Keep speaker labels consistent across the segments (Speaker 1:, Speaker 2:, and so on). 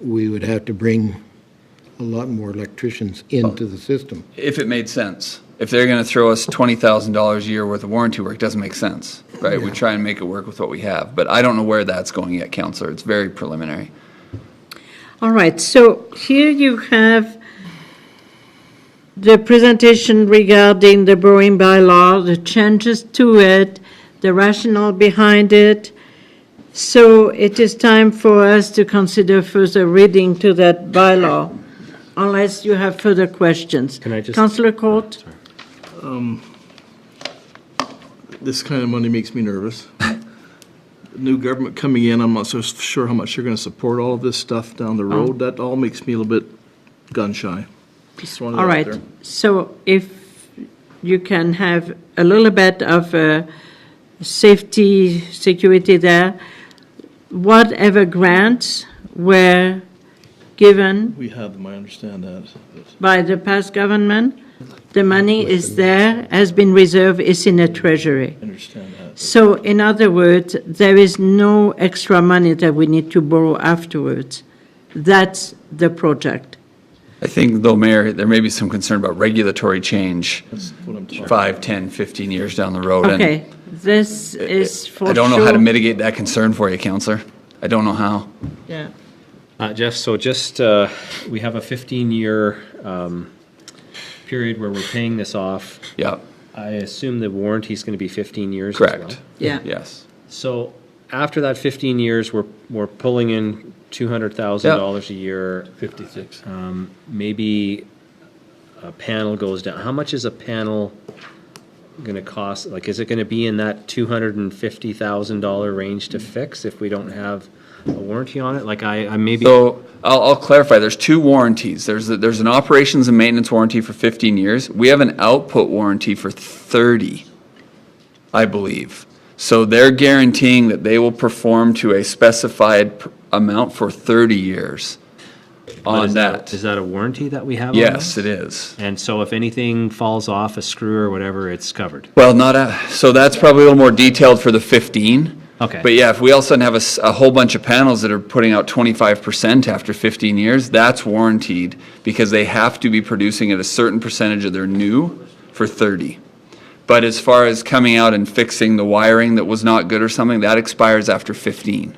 Speaker 1: we would have to bring a lot more electricians into the system.
Speaker 2: If it made sense. If they're going to throw us $20,000 a year worth of warranty work, it doesn't make sense, right? We try and make it work with what we have. But I don't know where that's going yet, Counselor. It's very preliminary.
Speaker 3: All right, so here you have the presentation regarding the brewing bylaw, the changes to it, the rationale behind it. So it is time for us to consider further reading to that bylaw, unless you have further questions.
Speaker 4: Can I just-
Speaker 3: Councillor Court?
Speaker 5: This kind of money makes me nervous. New government coming in, I'm not so sure how much you're going to support all of this stuff down the
Speaker 3: Oh.
Speaker 5: road. That all makes me a little bit gun shy. Just wanted
Speaker 3: All
Speaker 5: it out
Speaker 3: right,
Speaker 5: there.
Speaker 3: so if you can have a little bit of uh, safety, security there, whatever grants were given
Speaker 5: We have them, I understand that. but-
Speaker 3: by the past government, the money is there, has been reserved, is in the treasury.
Speaker 5: I understand that.
Speaker 3: So in other words, there is no extra money that we need to borrow afterwards. That's the project.
Speaker 2: I think, though, Mayor, there may be some concern about regulatory change
Speaker 5: That's what I'm talking about.
Speaker 2: five, ten, fifteen years down the road. and
Speaker 3: Okay, this is for sure.
Speaker 2: I don't know how to mitigate that concern for you, Counselor. I don't know how.
Speaker 3: Yeah.
Speaker 4: Uh, Jeff, so just, uh, we have a 15-year um, period where we're paying this off.
Speaker 2: Yeah,
Speaker 4: I assume the warranty's going to be 15 years as well?
Speaker 2: correct.
Speaker 3: Yeah.
Speaker 2: Yes.
Speaker 4: So after that 15 years, we're, we're pulling in $200,000 a year. Um,
Speaker 5: 56.
Speaker 4: Maybe a panel goes down. How much is a panel going to cost? Like, is it going to be in that $250,000 range to fix if we don't have a warranty on it? Like, I, I maybe.
Speaker 2: So I'll, I'll clarify. There's two warranties. There's a, there's an operations and maintenance warranty for 15 years. We have an output warranty for 30, I believe. So they're guaranteeing that they will perform to a specified p- amount for 30 years
Speaker 4: But
Speaker 2: on
Speaker 4: is
Speaker 2: that.
Speaker 4: Is that a warranty that we have on
Speaker 2: Yes,
Speaker 4: those?
Speaker 2: it is.
Speaker 4: And so if anything falls off a screw or whatever, it's covered.
Speaker 2: Well, not a, so that's probably a little more detailed for the 15.
Speaker 4: Okay.
Speaker 2: But yeah, if we all of a sudden have a, s- a whole bunch of panels that are putting out 25% after 15 years, that's warranted because they have to be producing at a certain percentage of their new for 30. But as far as coming out and fixing the wiring that was not good or something, that expires after 15.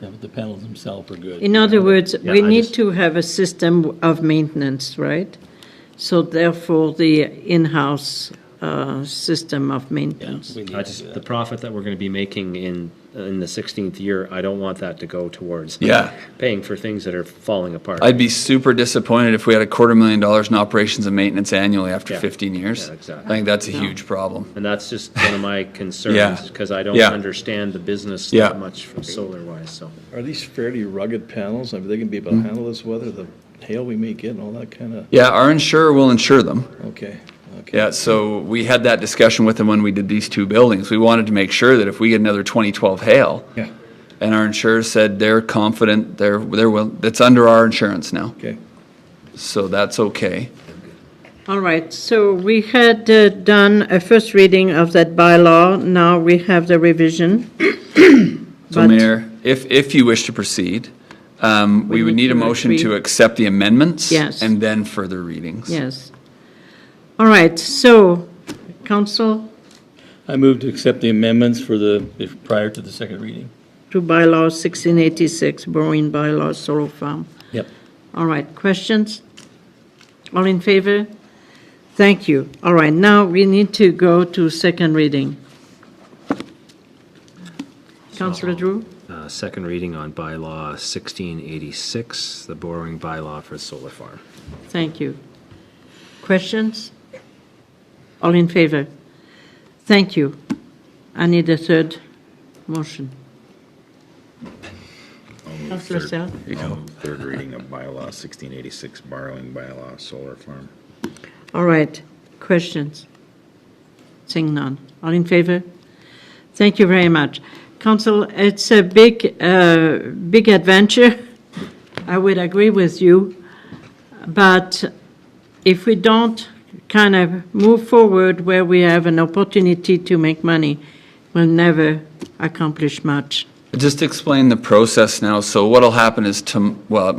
Speaker 6: Yeah, but the panels themselves are good.
Speaker 3: In other words, we
Speaker 4: I
Speaker 3: need
Speaker 4: just-
Speaker 3: to have a system of maintenance, right? So therefore, the in-house uh, system of maintenance.
Speaker 6: We need
Speaker 4: I
Speaker 6: to do
Speaker 4: just,
Speaker 6: that.
Speaker 4: the profit that we're going to be making in, in the 16th year, I don't want that to go towards.
Speaker 2: Yeah.
Speaker 4: Paying for things that are falling apart.
Speaker 2: I'd be super disappointed if we had a quarter million dollars in operations and maintenance annually after
Speaker 4: Yeah.
Speaker 2: 15 years.
Speaker 4: Yeah, exactly.
Speaker 2: I think that's a huge problem.
Speaker 4: And that's just one of my
Speaker 2: Yeah.
Speaker 4: concerns, because I don't
Speaker 2: Yeah.
Speaker 4: understand the business
Speaker 2: Yeah.
Speaker 4: that much from solar wise, so.
Speaker 5: Are these fairly rugged panels? I mean, they can be able to handle this weather, the hail we may get and all that kind of,
Speaker 2: Yeah, our insurer will insure them.
Speaker 5: okay, okay.
Speaker 2: Yeah, so we had that discussion with them when we did these two buildings. We wanted to make sure that if we get another 2012 hail,
Speaker 5: Yeah.
Speaker 2: and our insurer said they're confident, they're, they're, will- that's under our insurance now,
Speaker 5: Okay.
Speaker 2: so that's okay.
Speaker 3: All right, so we had uh, done a first reading of that bylaw, now we have the revision.
Speaker 2: So
Speaker 3: But-
Speaker 2: Mayor, if, if you wish to proceed, um, we would need a motion to
Speaker 3: agree.
Speaker 2: accept the amendments.
Speaker 3: Yes.
Speaker 2: And then further readings.
Speaker 3: Yes. All right, so, council
Speaker 6: I move to accept the amendments for the, if- prior to the second reading.
Speaker 3: to bylaw 1686, borrowing bylaw, solar farm.
Speaker 6: Yep.
Speaker 3: All right, questions? All in favor? Thank you. All right, now we need to go to second reading. Councillor Drew?
Speaker 4: Uh, second reading on bylaw 1686, the borrowing bylaw for solar farm.
Speaker 3: Thank you. Questions? All in favor? Thank you. I need a third motion. Councillor Selk?
Speaker 7: Um, Third reading of bylaw sixteen eighty-six, borrowing bylaw, solar farm.
Speaker 3: All right, questions? Seeing none. All in favor? Thank you very much. Council, it's a big, uh, big adventure. I would agree with you. But if we don't kind of move forward where we have an opportunity to make money, we'll never accomplish much.
Speaker 2: Just explain the process now. So what'll happen is, tom- well,